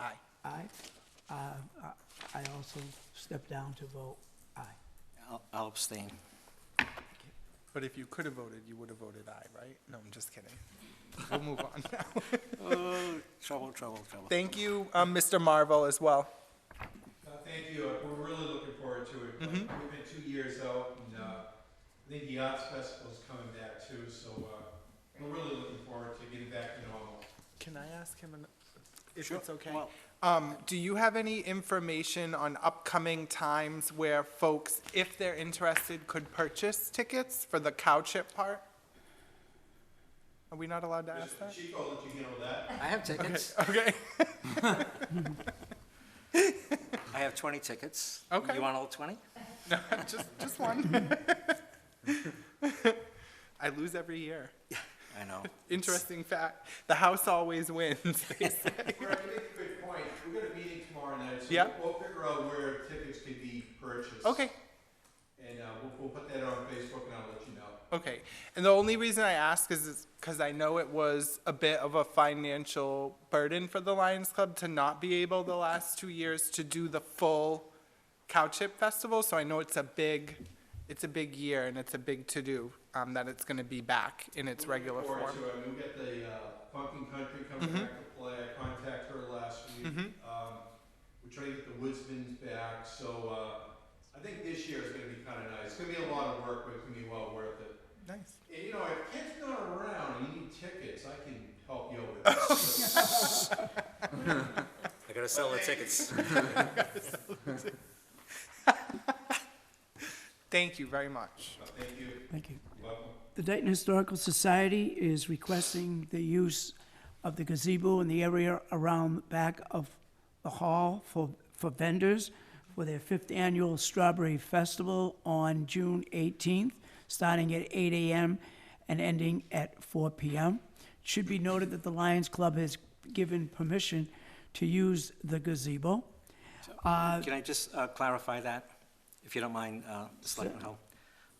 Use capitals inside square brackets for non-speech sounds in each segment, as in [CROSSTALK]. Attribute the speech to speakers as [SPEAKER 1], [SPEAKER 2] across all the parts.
[SPEAKER 1] Aye. Uh, I I also step down to vote aye.
[SPEAKER 2] I'll- I'll abstain.
[SPEAKER 3] But if you could have voted, you would have voted aye, right? No, I'm just [LAUGHS] kidding. We'll move on now.
[SPEAKER 2] Oh, trouble, trouble, trouble.
[SPEAKER 3] Thank you, um, Mr. Marvel, as well.
[SPEAKER 4] Uh, Thank you, Uh, we're really looking forward to it.
[SPEAKER 3] Mm-hmm.
[SPEAKER 4] We've been two years out, and uh, I think the Arts Festival's coming back too, so uh, we're really looking forward to getting back to normal.
[SPEAKER 3] Can I ask him an- if
[SPEAKER 2] Sure,
[SPEAKER 3] it's okay?
[SPEAKER 2] well-
[SPEAKER 3] Um, do you have any information on upcoming times where folks, if they're interested, could purchase tickets for the cow chip part? Are we not allowed to ask
[SPEAKER 4] Mr.
[SPEAKER 3] that?
[SPEAKER 4] Chico, let you handle
[SPEAKER 2] [LAUGHS]
[SPEAKER 4] that.
[SPEAKER 2] I have tickets.
[SPEAKER 3] Okay,
[SPEAKER 2] I have 20 tickets.
[SPEAKER 3] Okay.
[SPEAKER 2] You want all 20? [LAUGHS]
[SPEAKER 3] [LAUGHS] just, just one. I lose every year.
[SPEAKER 2] I know.
[SPEAKER 3] Interesting fact, the house always wins. [LAUGHS]
[SPEAKER 4] Brett, you make a good point. We've got a meeting tomorrow night, so
[SPEAKER 3] Yeah.
[SPEAKER 4] we'll figure out where tickets can be purchased.
[SPEAKER 3] Okay,
[SPEAKER 4] And uh, we'll- we'll put that on Facebook, and I'll let you know.
[SPEAKER 3] Okay, and the only reason I ask is because I know it was a bit of a financial burden for the Lions Club to not be able the last two years to do the full cow chip festival, so I know it's a big, it's a big year and it's a big to-do, um, that it's gonna be back in its regular
[SPEAKER 4] Looking forward
[SPEAKER 3] form. Mm-hmm.
[SPEAKER 4] to it. We'll get the uh, Funkin' Country coming back to play. I contacted her last week. Um, We're trying to get the Woodsman's back, so uh, I think this year is gonna be kinda nice. It's gonna be a lot of work, but it's gonna be well worth it.
[SPEAKER 3] Nice.
[SPEAKER 4] And you know, if kids not around and you need tickets, I can help you with
[SPEAKER 3] [LAUGHS]
[SPEAKER 4] that.
[SPEAKER 2] I gotta sell the tickets.
[SPEAKER 3] Thank you very much.
[SPEAKER 4] So Thank you.
[SPEAKER 1] Thank you.
[SPEAKER 4] You're welcome.
[SPEAKER 1] The Dayton Historical Society is requesting the use of the gazebo in the area around the back of the hall for, for vendors for their fifth annual Strawberry Festival on June 18th, starting at 8 a.m. and ending at 4 p.m. It Should be noted that the Lions Club has given permission to use the gazebo.
[SPEAKER 2] Can I just uh, clarify that, if you don't mind, uh, Selectman Hull?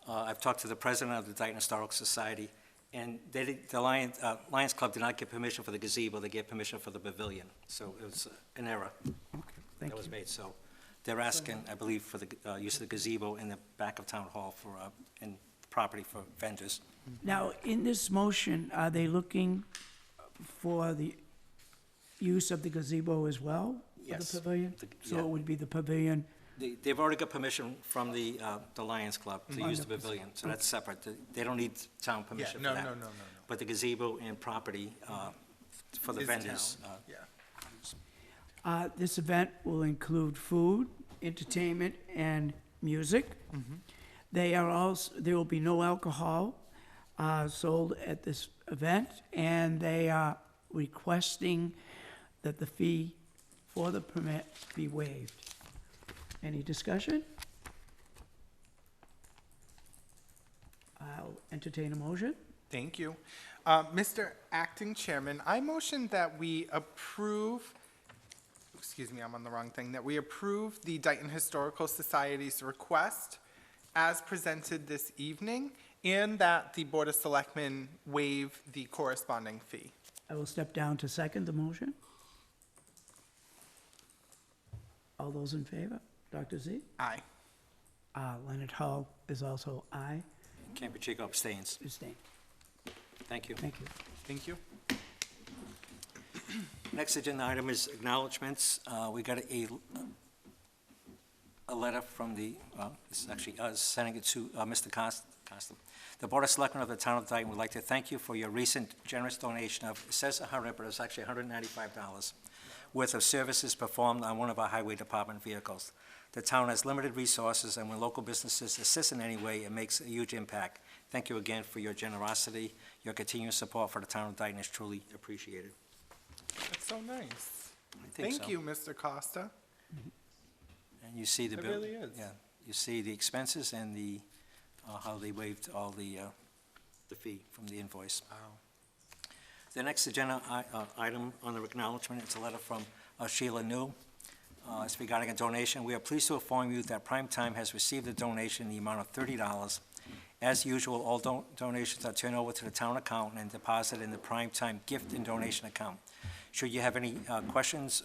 [SPEAKER 2] Uh, I've talked to the president of the Dayton Historical Society, and they, did- the Lions, uh, Lions Club did not get permission for the gazebo, they gave permission for the pavilion. So it was uh, an error
[SPEAKER 1] Thank
[SPEAKER 2] that was made, so they're asking, I believe, for the uh, use of the gazebo in the back of Town Hall for, uh, and property for vendors.
[SPEAKER 1] Now, in this motion, are they looking for the use of the gazebo as well? for
[SPEAKER 2] Yes.
[SPEAKER 1] The pavilion?
[SPEAKER 2] The-
[SPEAKER 1] So
[SPEAKER 2] yeah.
[SPEAKER 1] it would be the pavilion,
[SPEAKER 2] They- They've already got permission from the, uh, the Lions Club to use the pavilion, so that's separate. They- They don't need town permission for
[SPEAKER 3] Mm-hmm. no,
[SPEAKER 2] that.
[SPEAKER 3] no, no, no, no.
[SPEAKER 2] But the gazebo and property uh, for the
[SPEAKER 3] Is
[SPEAKER 2] vendors.
[SPEAKER 3] town.
[SPEAKER 2] uh,
[SPEAKER 3] Yeah.
[SPEAKER 1] Uh, This event will include food, entertainment, and music. They are also, there will be no alcohol uh, sold at this event, and they are requesting that the fee for the permit be waived. Any discussion? I'll entertain a motion.
[SPEAKER 3] Thank you. Uh, Mr. Acting Chairman, I motion that we approve, excuse me, I'm on the wrong thing, that we approve the Dayton Historical Society's request as presented this evening, and that the Board of Selectmen waive the corresponding fee.
[SPEAKER 1] I will step down to second the motion. All those in favor? Dr. Z?
[SPEAKER 3] Aye.
[SPEAKER 1] Uh, Leonard Hull is also aye.
[SPEAKER 2] Camp Pacheco abstains.
[SPEAKER 1] Abstain.
[SPEAKER 2] Thank you.
[SPEAKER 1] Thank you.
[SPEAKER 3] Thank you.
[SPEAKER 2] Next agenda item is acknowledgements. Uh, We got a, a letter from the, well, this is actually us, sending it to uh, Mr. Cost- Costa. The Board of Selectmen of the Town of Dayton would like to thank you for your recent generous donation of, it says 100, but it's actually $195 worth of services performed on one of our highway department vehicles. The town has limited resources, and when local businesses assist in any way, it makes a huge impact. Thank you again for your generosity. Your continued support for the Town of Dayton is truly appreciated.
[SPEAKER 3] That's so nice.
[SPEAKER 2] I think
[SPEAKER 3] Thank
[SPEAKER 2] so.
[SPEAKER 3] you, Mr. Costa.
[SPEAKER 2] And you see the
[SPEAKER 3] It
[SPEAKER 2] bill.
[SPEAKER 3] really is.
[SPEAKER 2] Yeah, you see the expenses and the, uh, how they waived all the, uh, the fee from the invoice.
[SPEAKER 3] Wow.
[SPEAKER 2] The next agenda i- uh, item on the acknowledgement is a letter from uh, Sheila New. Uh, It's regarding a donation. We are pleased to inform you that Prime Time has received a donation in the amount of thirty dollars. As usual, all don- donations are turned over to the town accountant and deposited in the Prime Time gift and donation account. Should you have any uh, questions